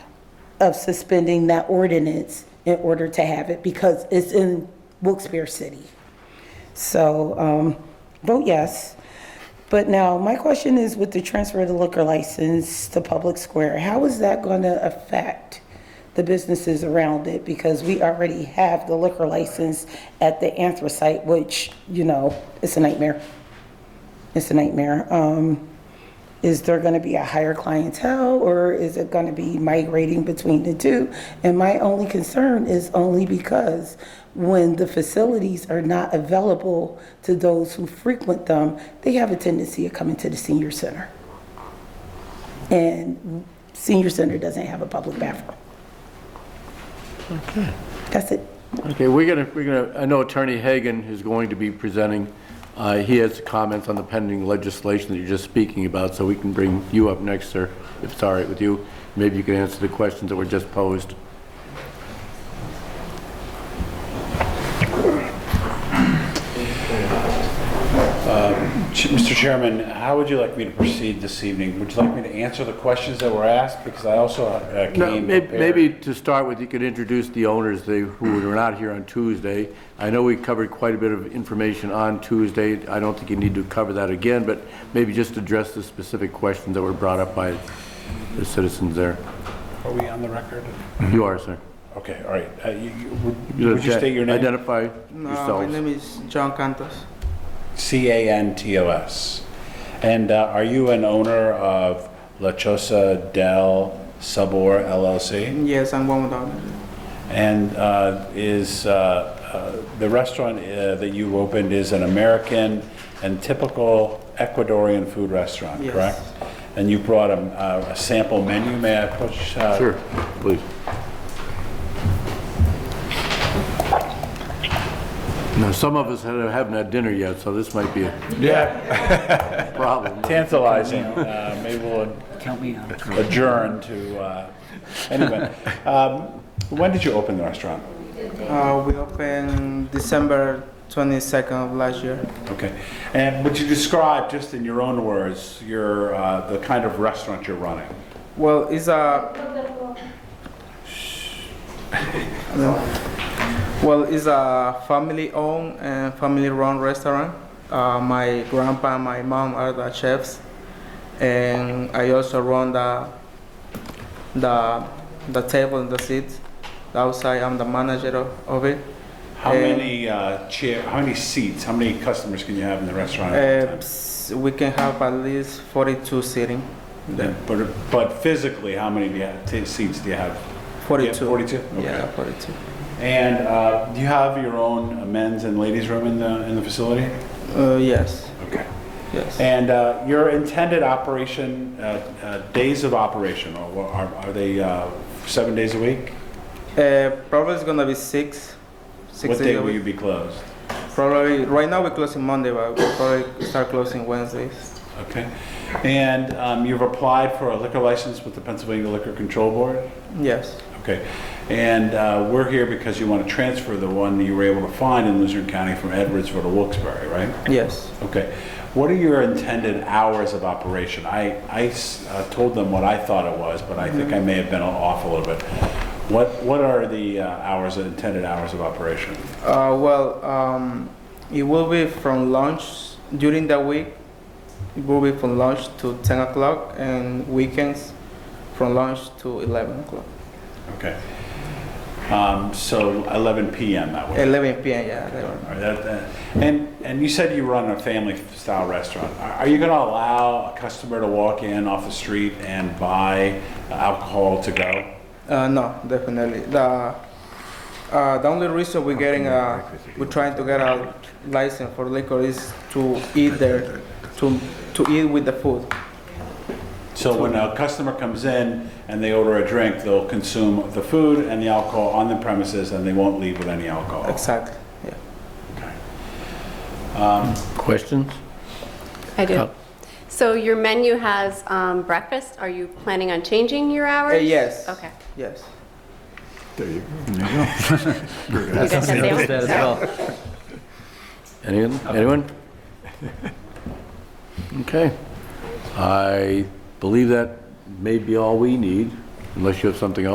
of suspending that ordinance in order to have it because it's in Wilkes-Barre City. So, um, vote yes. But now, my question is with the transfer of the liquor license to Public Square, how is that going to affect the businesses around it? Because we already have the liquor license at the anthracite, which, you know, it's a nightmare. It's a nightmare. Um, is there going to be a higher clientele or is it going to be migrating between the two? And my only concern is only because when the facilities are not available to those who frequent them, they have a tendency of coming to the senior center. And senior center doesn't have a public bathroom. That's it. Okay, we're gonna, we're gonna, I know Attorney Hagan is going to be presenting. Uh, He has comments on the pending legislation that you're just speaking about, so we can bring you up next, sir, if it's all right with you. Maybe you can answer the questions that were just posed. Ch- Mr. Chairman, how would you like me to proceed this evening? Would you like me to answer the questions that were asked? Because I also uh, No, came may- prepared. Maybe to start with, you could introduce the owners, they, who were not here on Tuesday. I know we covered quite a bit of information on Tuesday. I don't think you need to cover that again, but maybe just address the specific questions that were brought up by the citizens there. Are we on the record? You are, sir. Okay, all right. Uh, you- you- Would would you state your name? Identify No, Uh, my yourselves. name is John Cantos. C-A-N-T-O-S. And uh, are you an owner of La Chosa del Sabor LLC? Yes, I'm one with them. And uh, is, uh, uh, the restaurant uh, that you opened is an American and typical Ecuadorian food restaurant, Yes. correct? And you brought a uh, a sample menu, may I push? uh, Sure, please. Now, some of us ha- haven't had dinner yet, so this might be a Yeah, problem. tantalizing. Uh, Maybe we'll Count me out. adjourn to, uh, anyway. Um, When did you open the restaurant? Uh, we opened December 22nd of last year. Okay. And would you describe, just in your own words, your, uh, the kind of restaurant you're running? Well, it's a. No. Well, it's a family-owned and family-run restaurant. Uh, my grandpa and my mom are the chefs, and I also run the the the table and the seats. Outside, I'm the manager of, of it. How Uh, many uh, chair, how many seats, how many customers can you have in the restaurant at Uh, a time? ps- we can have at least 42 sitting. Then, But, but physically, how many do you have, t- seats do you have? You have 42. 42? Yeah, Okay. 42. And uh, do you have your own men's and ladies' room in the, in the facility? Uh, yes, Okay. yes. And uh, your intended operation, uh, uh, days of operation, or what- are are they uh, seven days a week? Uh, probably it's gonna be six. Six What days day a will week. you be closed? Probably right now we're closing Monday, but we'll probably start closing Wednesdays. Okay. And um, you've applied for a liquor license with the Pennsylvania Liquor Control Board? Yes, Okay. And uh, we're here because you want to transfer the one that you were able to find in Luzerne County from Edwardsville to Wilkes-Barre, right? yes. Okay. What are your intended hours of operation? I, I s- uh, told them what I thought it was, but I think I may have been off a little bit. What, what are the uh, hours, intended hours of operation? Uh, well, um, it will be from lunch during the week. It will be from lunch to 10 o'clock, and weekends from lunch to 11 o'clock. Okay. Um, So 11 PM that would be? 11 p.m. Yeah, 11. All right, that- that- And, and you said you run a family-style restaurant. Are are you going to allow a customer to walk in off the street and buy alcohol to go? Uh, no, definitely. The, uh, the only reason we're getting a, we're trying to get a license for liquor is to eat there, to, to eat with the food. So when a customer comes in and they order a drink, they'll consume the food and the alcohol on the premises, and they won't leave with any alcohol? Exactly, yeah. Questions? I do. Oh. So your menu has um, breakfast. Are you planning on changing your hours? Uh, yes. Okay. Yes. You guys have Notice sandwiches? that as well. Anyone? Anyone? Okay. I believe that may be all we need, unless you have something else.